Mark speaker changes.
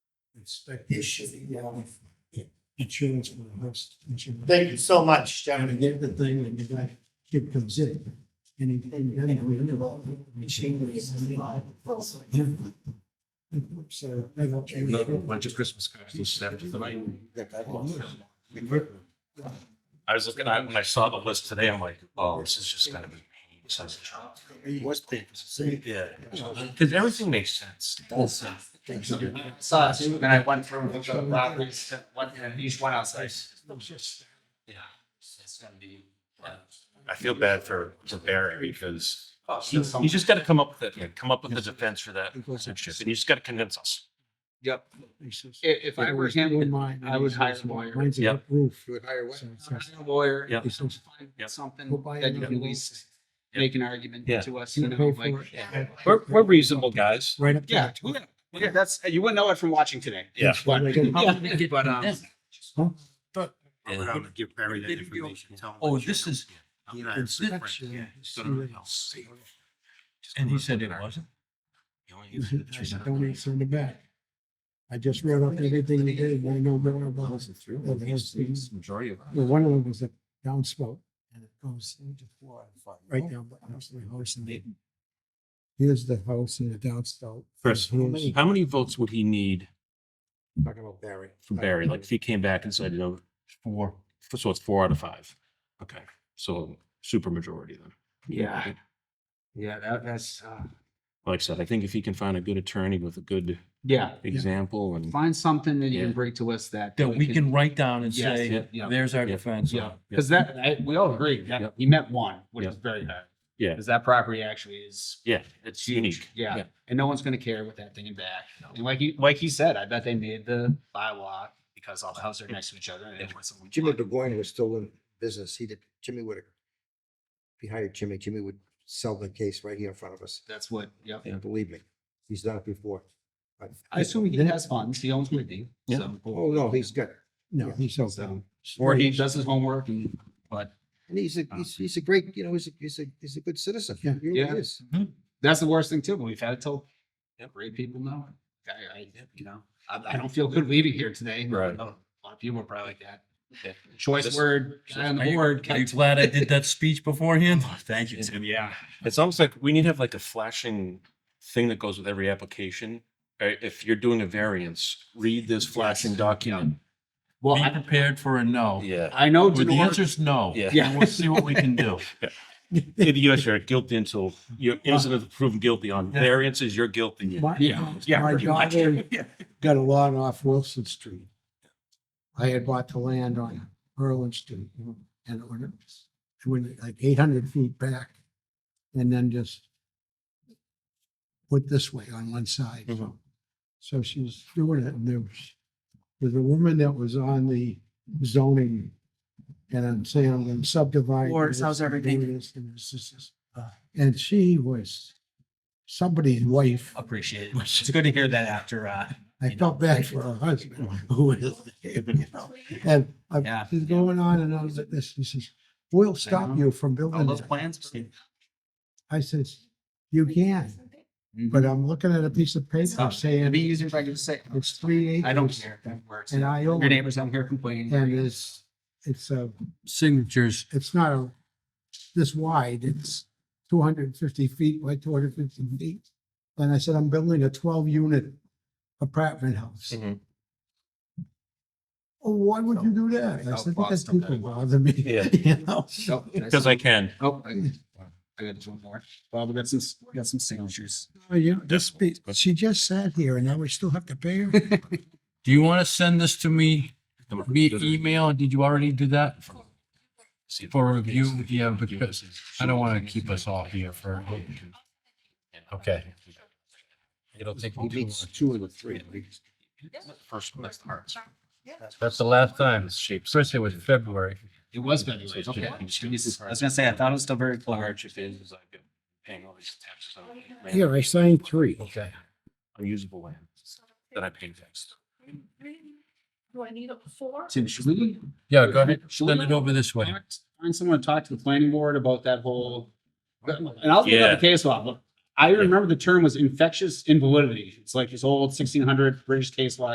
Speaker 1: expectation of insurance for the house. insurance.
Speaker 2: Thank you so much,
Speaker 1: And
Speaker 2: gentlemen.
Speaker 1: again, the thing that the guy, kid comes in and he, and then he really loves it. So I don't change.
Speaker 3: Another bunch of Christmas cards to snap to tonight. I was looking at, when I saw the list today, I'm like, oh, this is just gonna be. such a job.
Speaker 4: What's the, see,
Speaker 3: Yeah. Cause everything makes sense.
Speaker 2: Saw it too, and I went through the properties, to one, and each one outside.
Speaker 3: I feel bad for for Barry because you you just gotta come up with it, come up with a defense for that. shit, And you just gotta convince us.
Speaker 5: Yep. If, if I were him, I would hire a lawyer.
Speaker 1: Mine's a
Speaker 3: Yep.
Speaker 1: good roof.
Speaker 4: you would hire what?
Speaker 1: So it's
Speaker 5: I'd
Speaker 1: just-
Speaker 5: hire a lawyer,
Speaker 3: Yep.
Speaker 1: it's just-
Speaker 3: Yep.
Speaker 5: find something
Speaker 1: We'll buy
Speaker 5: that you can
Speaker 1: another
Speaker 5: at least
Speaker 3: Yeah.
Speaker 5: make an argument
Speaker 3: Yeah.
Speaker 5: to us,
Speaker 1: You
Speaker 5: you
Speaker 1: can
Speaker 5: know,
Speaker 1: pay
Speaker 5: like.
Speaker 1: for it.
Speaker 5: yeah.
Speaker 3: We're, we're reasonable guys.
Speaker 1: Right up. to
Speaker 5: Yeah,
Speaker 1: the-
Speaker 5: yeah, yeah, that's, you wouldn't know it from watching today.
Speaker 3: Yeah.
Speaker 5: But,
Speaker 1: Like, uh,
Speaker 5: yeah, but, um,
Speaker 4: I would have to give Barry that information. tell him
Speaker 6: Oh,
Speaker 4: what you
Speaker 6: this
Speaker 4: know.
Speaker 6: is,
Speaker 4: He and I are super friends.
Speaker 1: inspection,
Speaker 4: Go to the house.
Speaker 1: see.
Speaker 4: Just
Speaker 6: and
Speaker 4: go
Speaker 6: he
Speaker 4: to
Speaker 6: said
Speaker 4: the
Speaker 6: it
Speaker 4: bar.
Speaker 6: wasn't?
Speaker 4: He only
Speaker 1: I
Speaker 4: uses the tree
Speaker 1: said,
Speaker 4: down
Speaker 1: Don't
Speaker 4: there.
Speaker 1: answer in the back. I just wrote up everything you did, I know more about it. Well, there's the-
Speaker 6: Majority of.
Speaker 1: Well, one of them was a downspout and it goes into four and five. Right now, but house, my house and they. Here's the house and the downspout.
Speaker 3: Chris, how many, how many votes would he need
Speaker 4: Talking about Barry. Uh,
Speaker 3: for Barry? Like if he came back and said, you know, four, so it's four out of five. Okay, so super majority then.
Speaker 5: yeah. Yeah, that, that's, uh,
Speaker 3: Like I said, I think if he can find a good attorney with a good
Speaker 5: yeah,
Speaker 3: example and.
Speaker 5: find something that you
Speaker 3: Yeah.
Speaker 5: can bring to us that.
Speaker 6: That we can write down and
Speaker 5: Yes,
Speaker 6: say,
Speaker 5: yeah.
Speaker 6: there's our
Speaker 3: Yeah,
Speaker 6: defense.
Speaker 5: Yeah,
Speaker 6: on it."
Speaker 5: because that, I, we all agree,
Speaker 3: Yeah.
Speaker 5: that he meant one, which is
Speaker 3: Yeah.
Speaker 5: very bad.
Speaker 3: Yeah.
Speaker 5: Because that property actually is
Speaker 3: Yeah, it's unique.
Speaker 5: Yeah,
Speaker 6: Yeah.
Speaker 5: and no one's gonna care what that thing is back. And like he, like he said, I bet they made the bylaw because all the houses are next to each other and it was.
Speaker 4: Jimmy DeGoyan was still in business. He did, Jimmy Whitaker. If you hired Jimmy, Jimmy would sell the case right here in front of us.
Speaker 5: That's what, yep.
Speaker 4: And believe me, he's done it before. But-
Speaker 5: I assume he has funds, he owns Whitney, so.
Speaker 4: Oh, no, he's got,
Speaker 1: No, he's
Speaker 5: So,
Speaker 1: open.
Speaker 5: Or he does his homework and, but
Speaker 4: and he's a, he's, he's a great, you know, he's a, he's a, he's a good citizen. He
Speaker 1: Yeah.
Speaker 4: really
Speaker 5: Yeah.
Speaker 4: is.
Speaker 5: that's the worst thing too, but we've had it till, great people know. it. I, I, you know, I, I don't feel good leaving here today.
Speaker 3: Right.
Speaker 5: A lot of people are probably like that.
Speaker 3: Yeah.
Speaker 5: Choice
Speaker 3: This-
Speaker 5: word, guy on
Speaker 6: Are
Speaker 5: the
Speaker 6: you-
Speaker 5: board.
Speaker 6: Are you glad I did that speech beforehand? Thank you, Tim.
Speaker 5: Yeah.
Speaker 3: It's almost like we need to have like a flashing thing that goes with every application. Right? If you're doing a variance, read this flashing document.
Speaker 5: Well,
Speaker 6: Be
Speaker 5: I,
Speaker 6: prepared for a no.
Speaker 3: Yeah.
Speaker 5: I know.
Speaker 6: With the
Speaker 5: Denora-
Speaker 6: answer's no.
Speaker 3: Yeah.
Speaker 6: And we'll see what we can do.
Speaker 3: In the US, you're guilty until you're innocent until proven guilty on
Speaker 6: Yeah.
Speaker 3: variances, you're guilty.
Speaker 1: My-
Speaker 5: Yeah.
Speaker 3: Yeah,
Speaker 1: My
Speaker 3: pretty much.
Speaker 1: daughter got a lot off Wilson Street. I had bought the land on Berlin Street and when it was, it went like eight hundred feet back and then just put this way on one side.
Speaker 3: Mhm.
Speaker 1: So she was doing it and there was, there's a woman that was on the zoning and I'm saying I'm gonna subdivide.
Speaker 7: Or how's
Speaker 1: this and do
Speaker 7: everything?
Speaker 1: this And this, this, this. And she was somebody's wife.
Speaker 5: Oh,
Speaker 7: Appreciate it. It's good to hear that after, uh,
Speaker 1: I
Speaker 7: you
Speaker 1: felt
Speaker 7: know.
Speaker 1: bad for her husband, who is, you know, and
Speaker 7: Yeah.
Speaker 1: I'm, she's going on and on with this, she says, we'll stop you from
Speaker 5: All
Speaker 1: building
Speaker 5: Oh, those
Speaker 1: it.
Speaker 5: plans.
Speaker 1: I says, you can, but I'm looking at a piece of paper
Speaker 5: Stop. It'd be
Speaker 1: saying
Speaker 5: easier if I could just say,
Speaker 1: it's three acres.
Speaker 5: I don't care. That works.
Speaker 1: And I own
Speaker 5: Your
Speaker 1: it,
Speaker 5: neighbors out here complaining.
Speaker 1: and it's, it's a,
Speaker 6: Signatures.
Speaker 1: it's not a, this wide, it's two hundred and fifty feet by two hundred and fifty feet. And I said, I'm building a twelve unit apartment house.
Speaker 5: Mm-hmm.
Speaker 3: Mhm.
Speaker 1: Oh, why would you do that? I
Speaker 5: Out
Speaker 1: said, because
Speaker 5: Boston,
Speaker 1: people
Speaker 5: that-
Speaker 1: bother me,
Speaker 3: Yeah.
Speaker 1: you know?
Speaker 5: Oh, did
Speaker 3: Because I can.
Speaker 5: Oh, I I got just one more. Bob, we got some, we got some signatures.
Speaker 1: Oh, you know, this, be- she just sat here and now we still have to pay her?
Speaker 6: Do you want to send this to me via email? Did you already do that? For review, yeah, because I don't want to keep us all here for. Okay. It'll take me
Speaker 4: He
Speaker 6: too
Speaker 4: meets
Speaker 6: long.
Speaker 4: two of the three.
Speaker 3: First one, that's the hardest.
Speaker 6: That's the last time. First it was February.
Speaker 5: It was February. Okay. Jesus. I was gonna say, I thought it was still very clear.
Speaker 3: Hardship is, is I've been paying all these taxes on land,
Speaker 1: Here, I signed three.
Speaker 6: Okay.
Speaker 3: unusable land that I paid taxes.
Speaker 8: Do I need a four?
Speaker 5: Tim, should we
Speaker 6: Yeah, go ahead.
Speaker 5: Should we-
Speaker 6: Send it over this way.
Speaker 5: find someone to talk to the planning board about that whole? And I'll look
Speaker 3: Yeah.
Speaker 5: up the case law. but I remember the term was infectious invalidity. It's like this old sixteen hundred British case law